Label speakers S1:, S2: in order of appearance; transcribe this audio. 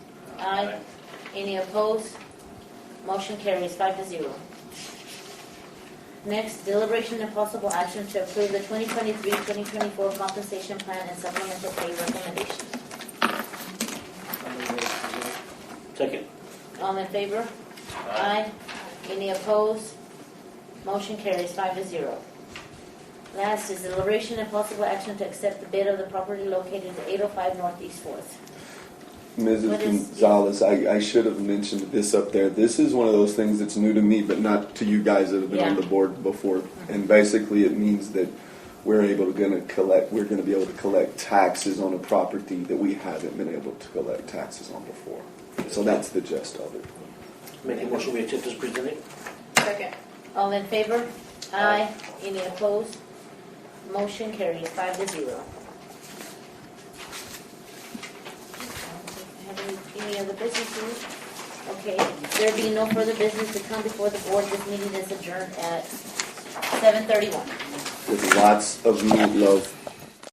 S1: Aye. Any opposed? Motion carries five to zero. Next, deliberation and possible action to approve the 2023-2024 compensation plan and supplemental pay recommendation.
S2: Second.
S1: All in favor? Aye. Any opposed? Motion carries five to zero. Last is deliberation and possible action to accept the bid of the property located at 805 Northeast Fourth.
S3: Mrs.
S1: What is-
S3: Gonzalez, I, I should have mentioned this up there. This is one of those things that's new to me, but not to you guys that have been on
S1: Yeah.
S3: the board before. And basically, it means that we're able to gonna collect, we're gonna be able to collect taxes on a property that we haven't been able to collect taxes on before. So that's the gist of it.
S2: Make a motion, we accept as presented.
S4: Second.
S1: All in favor? Aye. Any opposed? Motion carries five to zero. Have any- Any other business? Louis? Okay, there being no further business to come before the board, this meeting is adjourned at seven thirty-one.
S3: With lots of meatloaf